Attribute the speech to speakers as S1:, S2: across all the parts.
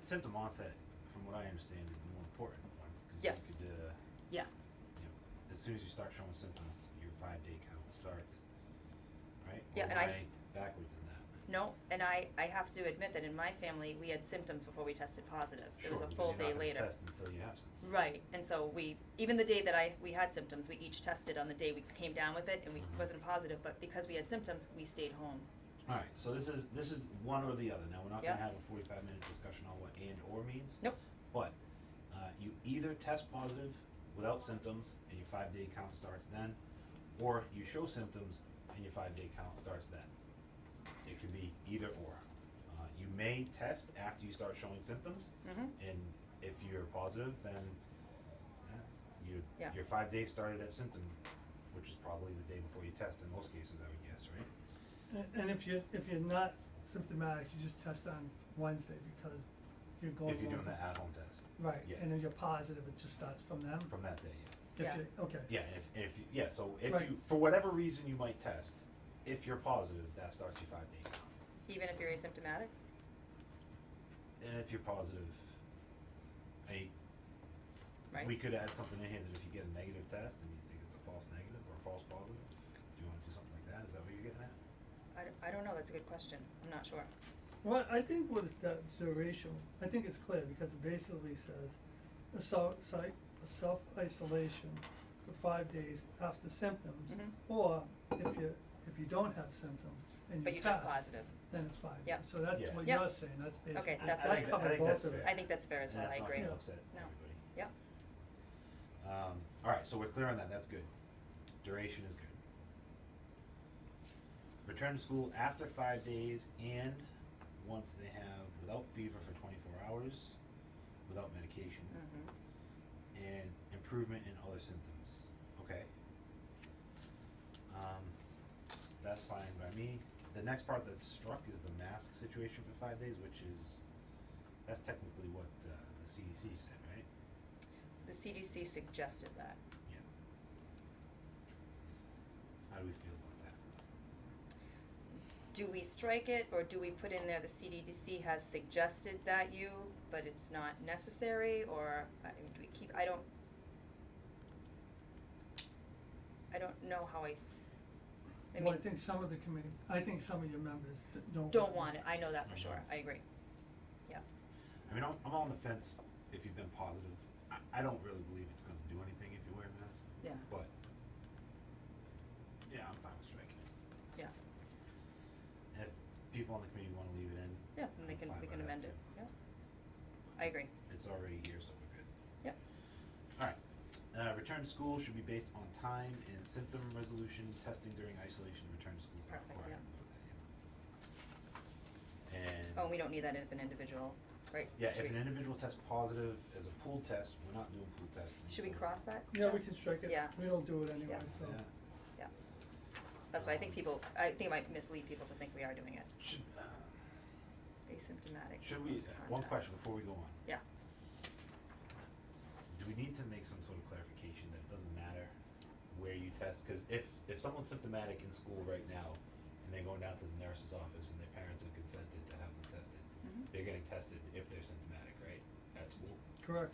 S1: symptom onset, from what I understand, is the more important one. 'cause you
S2: Yes.
S1: could, uh,
S2: Yeah.
S1: you know, as soon as you start showing symptoms, your five day count starts. Right?
S2: Yeah,
S1: Or
S2: and I-
S1: am Backwards in that.
S2: No, and I, I have to admit that in my family, we had symptoms before we tested positive. It was
S1: Sure,
S2: a
S1: because
S2: full
S1: you're not
S2: day
S1: gonna
S2: later.
S1: Test until you have symptoms.
S2: Right, and so we, even the day that I, we had symptoms, we each tested on the day we came down with it and we
S1: Mhm.
S2: wasn't positive, but because we had symptoms, we stayed home.
S1: Alright, so this is, this is one or the other, now we're not gonna
S2: Yeah.
S1: have a forty-five minute discussion on what and or means.
S2: Nope.
S1: But, uh, you either test positive without symptoms and your five day count starts then, or you show symptoms and your five day count starts then. It could be either or. Uh, you may test after you start showing symptoms,
S2: Mm-hmm.
S1: and if you're positive, then eh, you,
S2: Yeah.
S1: your five days started at symptom, which is probably the day before you test in most cases, I would guess, right?
S3: And, and if you're, if you're not symptomatic, you just test on Wednesday because you're going.
S1: If you're doing
S3: along-
S1: the at-home test
S3: Right,
S1: yeah.
S3: and if you're positive, it just starts from them.
S1: from that day, yeah.
S3: If
S2: Yeah.
S3: you- Okay.
S1: Yeah, and if, if, yeah, so if
S3: Right.
S1: you, for whatever reason you might test, if you're positive, that starts your five days.
S2: Even if you're asymptomatic?
S1: And if you're positive, I,
S2: Right.
S1: we could add something in here that if you get a negative test and you think it's a false negative or a false positive, do you wanna do something like that? Is that what you're getting at?
S2: I, d- I don't know, that's a good question, I'm not sure.
S3: Well, I think what is that duration, I think it's clear because it basically says a self, si- a self-isolation for five days after symptoms.
S2: Mhm.
S3: Or if you, if you don't have symptoms and
S2: But
S3: you
S2: you
S3: test.
S2: test positive.
S3: Then it's five days.
S2: Yep.
S3: So that's
S1: Yeah.
S3: what
S2: Yep.
S3: you're saying, that's basically.
S2: Okay, that's
S1: I,
S2: I
S1: think,
S2: think-
S1: I think that's fair.
S2: I think that's fair as well, I agree.
S1: And that's not gonna upset
S2: No.
S1: everybody.
S2: Yep,
S1: Um, alright, so we're clear on that, that's good. Duration is good. Return to school after five days and once they have without fever for twenty-four hours, without medication,
S2: mhm,
S1: and improvement in other symptoms, okay? Um, that's fine by me. The next part that's struck is the mask situation for five days, which is, that's technically what, uh, the CDC said, right?
S2: the CDC suggested that.
S1: Yeah. How do we feel about that?
S2: Do we strike it, or do we put in there the CDDC has suggested that you, but it's not necessary, or, I mean, do we keep, I don't. I don't know how I, I
S3: Well, I
S2: mean,
S3: think some of the committee, I think some of your members d- don't.
S2: don't want it, I know that for
S1: Mhm.
S2: sure, I agree, yeah,
S1: I mean, I'm, I'm on the fence if you've been positive. I, I don't really believe it's gonna do anything if you wear a mask,
S2: yeah,
S1: but, yeah, I'm fine with striking it.
S2: yeah,
S1: And if people on the committee wanna leave it in,
S2: yeah, and they
S1: I'm
S2: can,
S1: fine
S2: we
S1: by
S2: can
S1: that
S2: amend
S1: too.
S2: it, yeah, I agree,
S1: it's already here, so we're good.
S2: Yep.
S1: Alright, uh, return to school should be based on time and symptom resolution, testing during isolation, return to school is not
S2: Perfect,
S1: required.
S2: yeah.
S1: yeah. And.
S2: oh, we don't need that if an individual, right?
S1: Yeah,
S2: Should
S1: if an
S2: we-
S1: individual tests positive as a pool test, we're not doing pool testing.
S2: Should we
S1: so-
S2: cross that?
S3: Yeah, we
S2: Jeff?
S3: can strike it.
S2: Yeah.
S3: We don't do it anyway,
S2: Yeah.
S3: so.
S1: Yeah.
S2: Yeah, that's why I think people, I think it might mislead people to think we are doing it.
S1: Should, uh,
S2: asymptomatic.
S1: should we,
S2: close
S1: one
S2: contacts.
S1: question before we go on.
S2: Yeah,
S1: Do we need to make some sort of clarification that it doesn't matter where you test? Cause if, if someone's symptomatic in school right now and they're going down to the nurse's office and their parents have consented to have them tested,
S2: Mhm.
S1: they're getting tested if they're symptomatic, right, at school?
S3: Correct.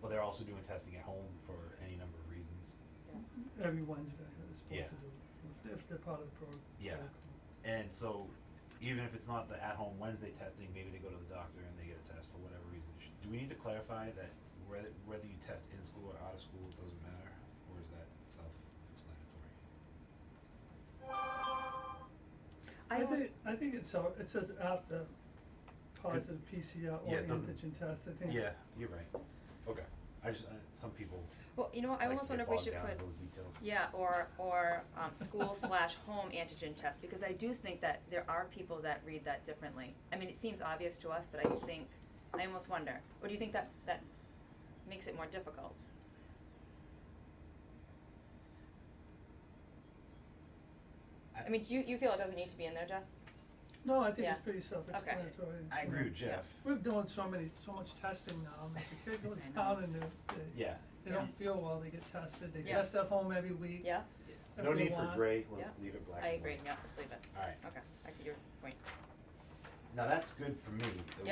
S1: But they're also doing testing at home for any number of reasons.
S2: yeah,
S3: Every Wednesday is
S1: Yeah.
S3: supposed to do it, if- if they're part of the program.
S1: Yeah. And so, even if it's not the at-home Wednesday testing, maybe they go to the doctor and they get a test for whatever reason. Sh- Do we need to clarify that whether, whether you test in school or out of school, it doesn't matter, or is that self-explanatory?
S2: I
S3: I
S2: almost,
S3: think, I think it's, so- it says after positive PCR or
S1: Yeah, it doesn't-
S3: antigen test, I think.
S1: Yeah, you're right. Okay, I just, I, some people
S2: well, you know, what, I
S1: like
S2: almost
S1: to get
S2: wonder if we
S1: bogged
S2: should
S1: down in
S2: put,
S1: those details.
S2: yeah, or, or, um, school slash home antigen test, because I do think that there are people that read that differently. I mean, it seems obvious to us, but I think, I almost wonder, or do you think that, that makes it more difficult? I mean, do you, you feel it doesn't need to be in there, Jeff?
S3: No, I think
S2: Yeah.
S3: it's pretty self-explanatory.
S1: I agree with
S2: Yeah.
S1: Jeff.
S3: We're doing so many, so much testing now, and if the kid goes
S2: I know.
S3: down and they, they,
S1: Yeah,
S3: they don't feel well, they get tested, they
S2: Yeah.
S3: test at home every week.
S2: Yeah,
S1: no
S3: Everyone
S1: need for
S3: want-
S1: gray, le-
S2: Yeah.
S1: leave it black
S2: I
S1: and
S2: agree,
S1: white.
S2: yeah, let's leave it,
S1: Alright,
S2: okay, I see your point.
S1: now that's good for me, that